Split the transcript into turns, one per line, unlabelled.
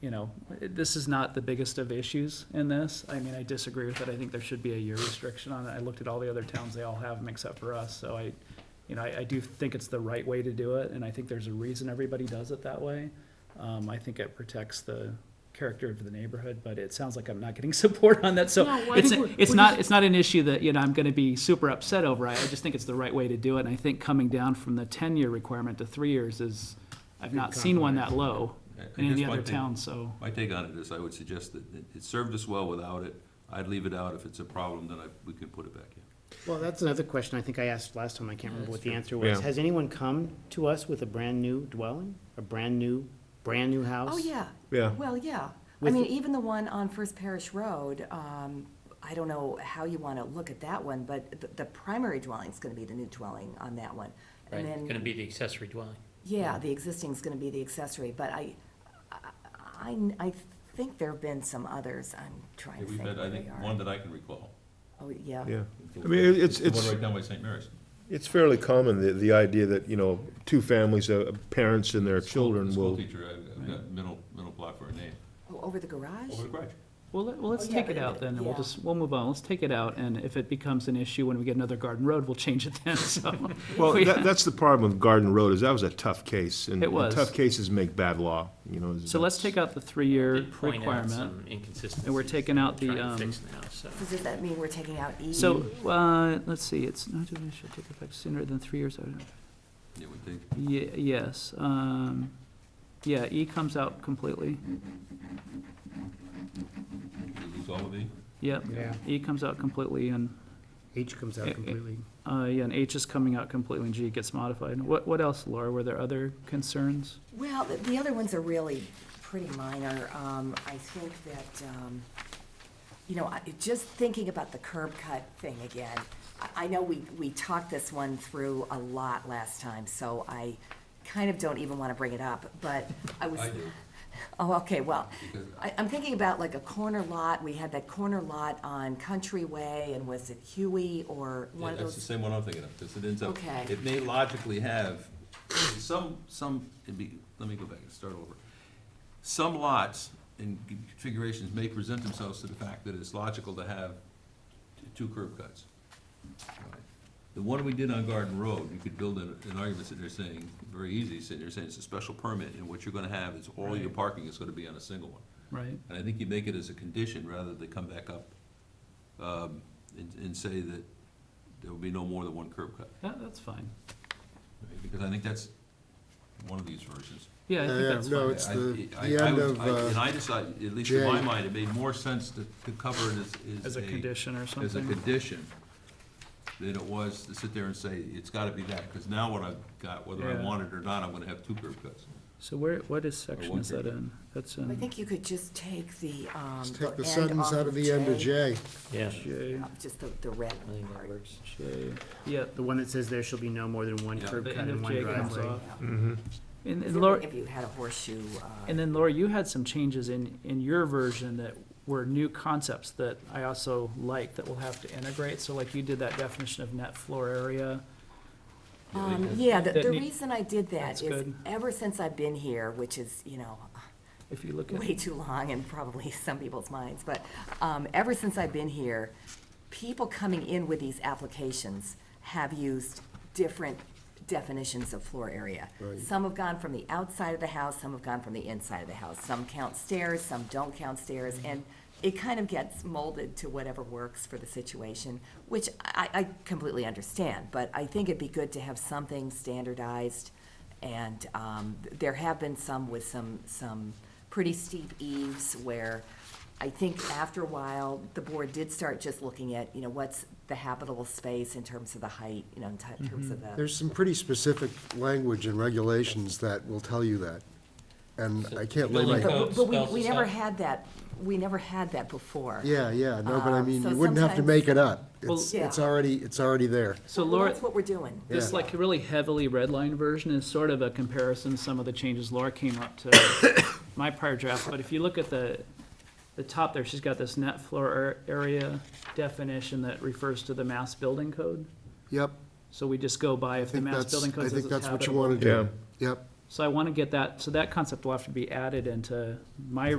you know, this is not the biggest of issues in this. I mean, I disagree with it. I think there should be a year restriction on it. I looked at all the other towns, they all have them except for us, so I, you know, I, I do think it's the right way to do it, and I think there's a reason everybody does it that way. Um, I think it protects the character of the neighborhood, but it sounds like I'm not getting support on that, so
No, I
it's,
think we're-
it's
we're
not,
just-
it's not an issue that, you know, I'm gonna be super upset over. I, I just think it's the right way to do it, and I think coming down from the ten-year requirement to three years is, I've not seen one that low
I- I
in any
guess my
other
take-
town, so.
My take on it is I would suggest that it- it served us well without it. I'd leave it out. If it's a problem, then I, we can put it back in.
Well, that's another question I think I asked last time, I can't remember what the answer was.
Yeah.
Has anyone come to us with a brand-new dwelling, a brand-new, brand-new house?
Oh, yeah.
Yeah.
Well, yeah. I
With-
mean, even the one on First Parish Road, um, I don't know how you want to look at that one, but the, the primary dwelling's going to be the new dwelling on that one.
Right,
And
it's gonna
then,
be the accessory dwelling.
yeah, the existing's going to be the accessory, but I, I, I- I think there've been some others. I'm trying to
We've
think
had, I
where
think,
they
one
are.
that I can recall.
Oh, yeah.
Yeah, I mean, it- it's,
The one
it's,
right down by St. Mary's.
it's fairly common, the, the idea that, you know, two families, uh, parents and their children
The School
will,
teacher, I've I've got middle, middle block for a name.
Oh, Over the garage?
Over the garage.
Well, let- well, let's
Oh, yeah,
take it
but-
out then, and we'll
yeah.
just, we'll move on, let's take it out, and if it becomes an issue when we get another Garden Road, we'll change it then, so.
well,
we-
that, that's the problem with Garden Road, is that was a tough case. and-
It
and
was.
Tough cases make bad law, you know.
So let's take out the three-year
Did point out
requirement.
some inconsistencies
and we're taking out
that we're
the,
trying to
um,
fix now, so.
So Does that mean we're taking out E?
So, uh, let's see, it's, no, it should take effect sooner than three years, I don't know.
Yeah, we think.
Ye- yes, um, yeah, E comes out completely,
We lose all of these.
yep.
Yeah.
E comes out completely, and,
H comes
Eh,
out
eh.
completely.
uh, yeah, and H is coming out completely, and G gets modified. What, what else, Laura, were there other concerns?
Well, the- the other ones are really pretty minor. Um, I think that, um, you know, I- just thinking about the curb cut thing again, I, I know we, we talked this one through a lot last time, so I kind of don't even want to bring it up, but I was.
I do.
Oh, okay, well,
Because-
I, I'm thinking about like a corner lot, we had that corner lot on Countryway, and was it Huey or one of
Yeah, that's the
those?
same one I'm thinking of, because it ends up,
Okay.
it may logically have, some, some, it'd be, let me go back and start over. Some lots and configurations may present themselves to the fact that it's logical to have t- two curb cuts. The one we did on Garden Road, you could build an, an argument that they're saying, very easy, sitting there saying it's a special permit, and what you're gonna have is all your parking is gonna be on a single one.
Right.
And I think you make it as a condition rather than come back up um, and, and say that there will be no more than one curb cut.
That, that's fine.
right? Because I think that's one of these versions.
Yeah, I think
Yeah,
that's
no,
fine.
it's
I-
the-
I-
the
I
end
would-
of,
I-
uh,
And I decided, at least in my
J.
mind, it made more sense to, to cover it
As
as,
a condition or
As a
something.
condition than it was to sit there and say, it's gotta be that, because now what I've got, whether I
Yeah.
want it or not, I'm gonna have two curb cuts.
So where, what is section
one
is that
page.
in? That's
I
in
think you could just take the, um,
Let's take the
end
sentence
off
out of the end of J.
Yeah.
J,
Yeah, Uh, Just the, the red
I think that
part.
works.
J, yeah,
The one that says there shall be no more than one
Yeah.
curb
the
cut
end
and
of
one
J comes
driveway. Mm-hmm.
off. And,
It's
and
like
Laura,
If you had a horseshoe, uh,
and then Laura, you had some changes in, in your version that were new concepts that I also like that we'll have to integrate. So like you did that definition of net floor area.
um, yeah, the,
That
the
need-
reason I did that
That's
is
good.
ever since I've been here, which is, you know,
If you look at,
way too long in probably some people's minds, but, um, ever since I've been here, people coming in with these applications have used different definitions of floor area. Some have gone from the outside of the house, some have gone from the inside of the house. Some count stairs, some don't count stairs, and it kind of gets molded to whatever works for the situation, which I, I completely understand, but I think it'd be good to have something standardized. And, um, there have been some with some, some pretty steep eaves where I think after a while, the board did start just looking at, you know, what's the habitable space in terms of the height, you know, in ti- terms of the,
There's some pretty specific language and regulations that will tell you that. And I can't lay
Building
my,
code
but, but we,
spells
we
this
never
out.
had that, we never had that before.
yeah, yeah, no, but I
Um,
mean,
so
you wouldn't have to
sometimes-
make it up.
Well-
It's,
Yeah.
it's already, it's already there.
so
Well,
Laura,
that's what we're doing.
this
Yeah.
like really heavily redlined version is sort of a comparison, to some of the changes Laura came up to my prior draft, but if you look at the, the top there, she's got this net floor ar- area definition that refers to the mass building code.
Yep,
So we just go by if the
think
mass
that's-
building
I
code says
think
it's
that's what you
habitable.
wanna do.
yeah,
yep.
So I want to get that, so that concept will have to be added into my